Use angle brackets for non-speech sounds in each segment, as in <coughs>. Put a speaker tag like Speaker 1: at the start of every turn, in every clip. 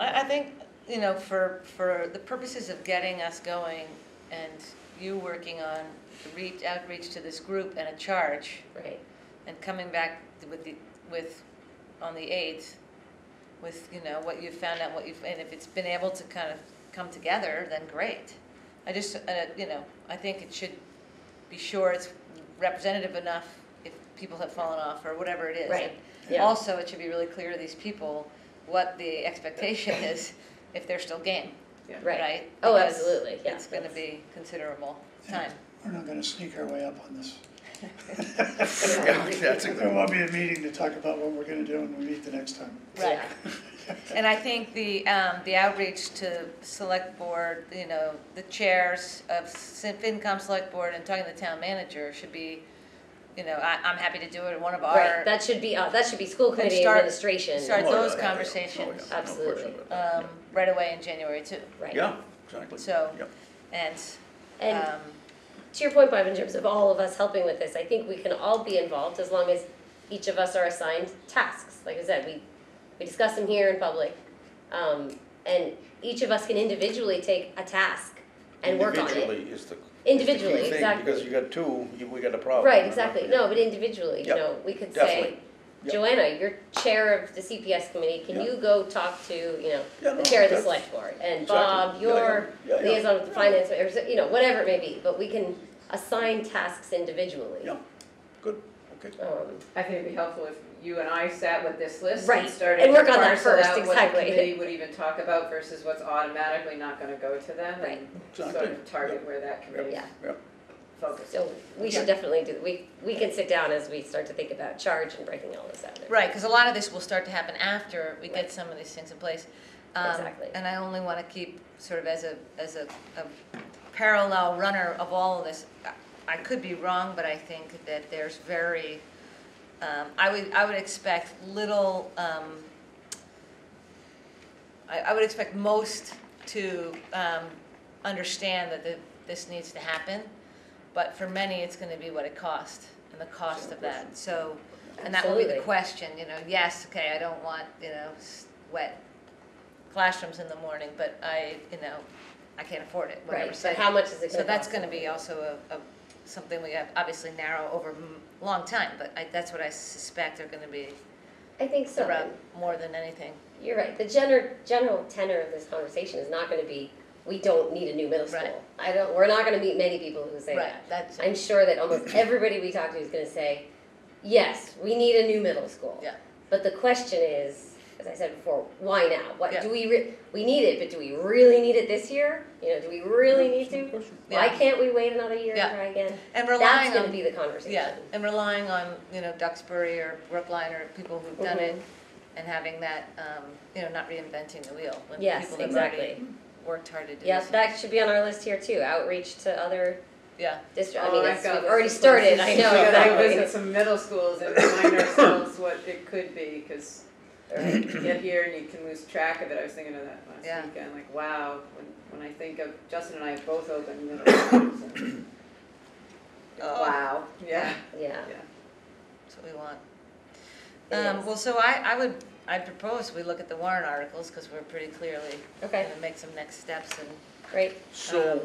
Speaker 1: I, I think, you know, for, for the purposes of getting us going and you working on the reach, outreach to this group and a charge
Speaker 2: Right.
Speaker 1: and coming back with the, with, on the eighth, with, you know, what you found out, what you've, and if it's been able to kind of come together, then great. I just, uh, you know, I think it should be sure it's representative enough if people have fallen off or whatever it is.
Speaker 2: Right.
Speaker 1: And
Speaker 2: Yeah.
Speaker 1: Also, it should be really clear to these people what the expectation is if they're still game, <laughs>
Speaker 2: Right.
Speaker 1: right?
Speaker 2: Oh,
Speaker 1: Because
Speaker 2: absolutely, yeah.
Speaker 1: It's gonna
Speaker 2: that's-
Speaker 1: be considerable time.
Speaker 3: We're not gonna sneak our way up on this.
Speaker 4: That's a
Speaker 3: There
Speaker 4: good
Speaker 3: won't
Speaker 4: one.
Speaker 3: be a meeting to talk about what we're gonna do when we meet the next time.
Speaker 1: Right.
Speaker 2: Yeah.
Speaker 1: And I think the, um, the outreach to select board, you know, the chairs of Sin- FinCom Select Board and talking to the town manager should be, you know, I, I'm happy to do it in one of
Speaker 2: Right,
Speaker 1: our,
Speaker 2: that should be, uh, that should be school committee
Speaker 1: start-
Speaker 2: administration.
Speaker 1: start
Speaker 4: Oh, yeah,
Speaker 1: those
Speaker 4: yeah, yeah. Oh,
Speaker 1: conversations.
Speaker 4: yeah. No question
Speaker 2: Absolutely.
Speaker 4: about that.
Speaker 1: um, right away in January too.
Speaker 2: Right.
Speaker 4: Yeah, exactly.
Speaker 1: So-
Speaker 4: Yep.
Speaker 1: And,
Speaker 2: And
Speaker 1: um,
Speaker 2: to your point, Bob, in terms of all of us helping with this, I think we can all be involved as long as each of us are assigned tasks. Like I said, we, we discuss them here in public. Um, and each of us can individually take a task and work on it.
Speaker 4: Individually is the. is the key
Speaker 2: Individually,
Speaker 4: thing,
Speaker 2: exactly.
Speaker 4: Because you got two, you, we got a problem.
Speaker 2: Right, exactly. No, but individually, you
Speaker 4: Oh. Yep,
Speaker 2: know, we could say,
Speaker 4: definitely. Yep.
Speaker 2: Joanna, you're chair of the CPS committee, can you go talk to, you
Speaker 4: Yeah,
Speaker 2: know,
Speaker 4: no,
Speaker 2: the chair of the
Speaker 4: that's-
Speaker 2: select board? And
Speaker 4: Exactly.
Speaker 2: Bob,
Speaker 4: Yeah, yeah,
Speaker 2: you're
Speaker 4: yeah, yeah.
Speaker 2: liaison with the finance, or, so- you know, whatever it may be, but we can assign tasks individually.
Speaker 4: Yeah, good, okay.
Speaker 2: Um,
Speaker 5: I think it'd be helpful if you and I sat with this list
Speaker 2: Right,
Speaker 5: and started
Speaker 2: and
Speaker 5: to
Speaker 2: work on that
Speaker 5: parcel
Speaker 2: first,
Speaker 5: out
Speaker 2: exactly.
Speaker 5: what the committee would even talk about versus what's automatically not gonna go to them
Speaker 2: Right.
Speaker 5: and sort
Speaker 4: Exactly.
Speaker 5: of target where that committee
Speaker 2: Yeah.
Speaker 4: Yeah.
Speaker 5: focuses.
Speaker 2: So we should definitely do, we, we can sit down as we start to think about charge and breaking all this out.
Speaker 1: Right, because a lot of this will start to happen after we get
Speaker 2: Right.
Speaker 1: some of these things in place. Um,
Speaker 2: Exactly.
Speaker 1: And I only want to keep sort of as a, as a, a parallel runner of all of this. I- I could be wrong, but I think that there's very, um, I would, I would expect little, um, I, I would expect most to, um, understand that the, this needs to happen. But for many, it's going to be what it costs and the cost of that. So, and that will be the
Speaker 2: Absolutely.
Speaker 1: question, you know, yes, okay, I don't want, you know, s- wet classrooms in the morning, but I, you know, I can't afford it, whatever.
Speaker 2: Right,
Speaker 1: So-
Speaker 2: but how much is it
Speaker 1: So
Speaker 2: gonna
Speaker 1: that's
Speaker 2: cost?
Speaker 1: gonna be also a, a, something we have obviously narrow over m- long time, but I, that's what I suspect are gonna be
Speaker 2: I think so.
Speaker 1: the rub more than anything.
Speaker 2: You're right. The gener- general tenor of this conversation is not going to be, we don't need a new middle school.
Speaker 1: Right.
Speaker 2: I don't. We're not going to meet many people who say
Speaker 1: Right,
Speaker 2: that.
Speaker 1: that's-
Speaker 2: I'm sure that almost everybody we talk to is going to say, yes, we need a new middle school.
Speaker 1: Yeah.
Speaker 2: But the question is, as I said before, why now? What
Speaker 1: Yeah.
Speaker 2: do we re- we need it? But do we really need it this year? You know, do we really need to? Why
Speaker 1: Yeah.
Speaker 2: can't we wait another year
Speaker 1: Yeah.
Speaker 2: and try again?
Speaker 1: And
Speaker 2: That's
Speaker 1: relying
Speaker 2: going to
Speaker 1: on,
Speaker 2: be the conversation.
Speaker 1: yeah, and relying on, you know, Duxbury or Brookline or people who've done it
Speaker 2: Mhm.
Speaker 1: and having that, um, you know, not reinventing the wheel when
Speaker 2: Yes,
Speaker 1: people have already
Speaker 2: exactly.
Speaker 1: worked hard to do this.
Speaker 2: Yes, that should be on our list here too. Outreach to other
Speaker 1: Yeah,
Speaker 2: district, I
Speaker 5: Oh,
Speaker 2: mean,
Speaker 5: I've
Speaker 2: it's,
Speaker 5: got
Speaker 2: we've
Speaker 5: this
Speaker 2: already
Speaker 5: list.
Speaker 2: started, I
Speaker 5: <laughs> We
Speaker 1: <laughs>
Speaker 2: know,
Speaker 5: gotta
Speaker 2: exactly.
Speaker 5: visit some middle schools and remind ourselves what it could be, cause
Speaker 2: Right.
Speaker 5: you get here and you can lose track of it, I was thinking of that
Speaker 1: Yeah.
Speaker 5: last weekend, like, wow, when, when I think of, Justin and I both opened middle schools and.
Speaker 1: Oh.
Speaker 5: Wow, yeah,
Speaker 2: Yeah,
Speaker 5: yeah.
Speaker 1: that's what we want.
Speaker 2: It
Speaker 1: Um,
Speaker 2: is.
Speaker 1: well, so I, I would, I propose we look at the warrant articles, cause we're pretty clearly
Speaker 2: okay,
Speaker 1: gonna make some next steps and,
Speaker 2: great.
Speaker 4: So,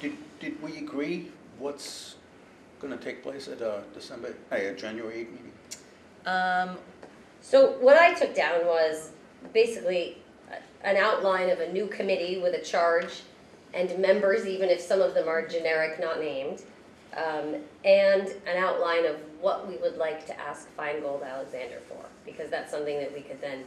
Speaker 4: did, did we agree what's gonna take place at uh December, eh, uh, January eighth meeting?
Speaker 1: um,
Speaker 2: So what I took down was basically a- an outline of a new committee with a charge and members, even if some of them are generic, not named, um, and an outline of what we would like to ask Feingold Alexander for, because that's something that we could then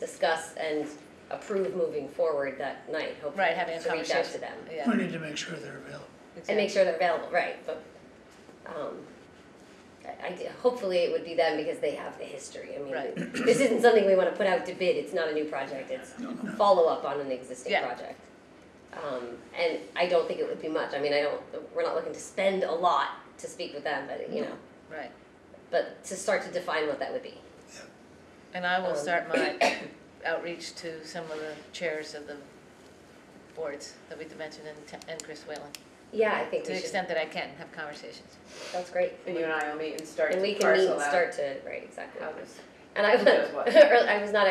Speaker 2: discuss and approve moving forward that night, hopefully,
Speaker 1: right, having a
Speaker 2: to reach
Speaker 1: conversation.
Speaker 2: out to them.
Speaker 1: Yeah.
Speaker 3: We need to make sure they're available.
Speaker 2: and make sure they're available, right, but, um, I, I, d- hopefully it would be them because they have the history, I mean,
Speaker 1: Right.
Speaker 2: <clears throat> this isn't something we wanna put out to bid, it's not a new project, it's follow-up on an existing
Speaker 1: Yeah.
Speaker 2: project. Um, and I don't think it would be much, I mean, I don't, we're not looking to spend a lot to speak with them, but, you know,
Speaker 1: Right,
Speaker 2: but to start to define what that would be.
Speaker 1: and I will
Speaker 2: Um,
Speaker 1: start my
Speaker 2: <coughs>
Speaker 1: outreach to some of the chairs of the boards that we mentioned and, Ta- and Chris Whalen,
Speaker 2: Yeah, I think
Speaker 1: to the
Speaker 2: we should,
Speaker 1: extent that I can, have conversations.
Speaker 2: that's great.
Speaker 5: And you and I will meet and start to
Speaker 2: And
Speaker 5: parcel out.
Speaker 2: we can meet and start to, right, exactly. <laughs>
Speaker 5: How this
Speaker 2: And I
Speaker 5: Who does what?
Speaker 2: was, I was not